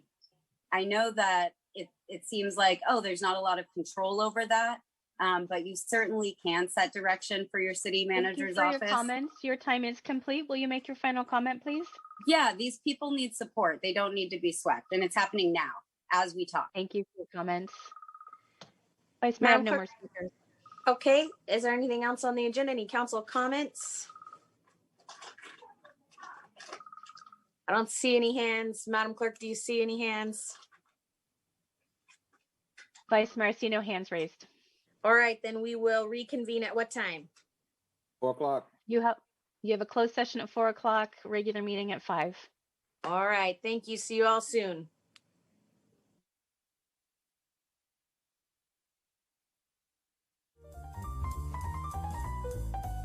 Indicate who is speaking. Speaker 1: I know that it, it seems like, oh, there's not a lot of control over that. Um, but you certainly can set direction for your city
Speaker 2: Thank you
Speaker 1: manager's
Speaker 2: for
Speaker 1: office.
Speaker 2: Your comments. Your time is complete. Will you make your final comment, please?
Speaker 1: Yeah, these people need support. They don't need to be swept. And it's happening now as we talk.
Speaker 2: Thank you for your comments. Vice Mayor, I have
Speaker 3: Madam
Speaker 2: no more
Speaker 3: Clerk.
Speaker 2: speakers.
Speaker 3: Okay, is there anything else on the agenda? Any council comments? I don't see any hands. Madam Clerk, do you see any hands?
Speaker 2: Vice Mayor, I see no hands raised.
Speaker 3: All right, then we will reconvene at what time?
Speaker 4: Four o'clock.
Speaker 2: You have, you have a closed session at four o'clock, regular meeting at five.
Speaker 3: All right, thank you. See you all soon.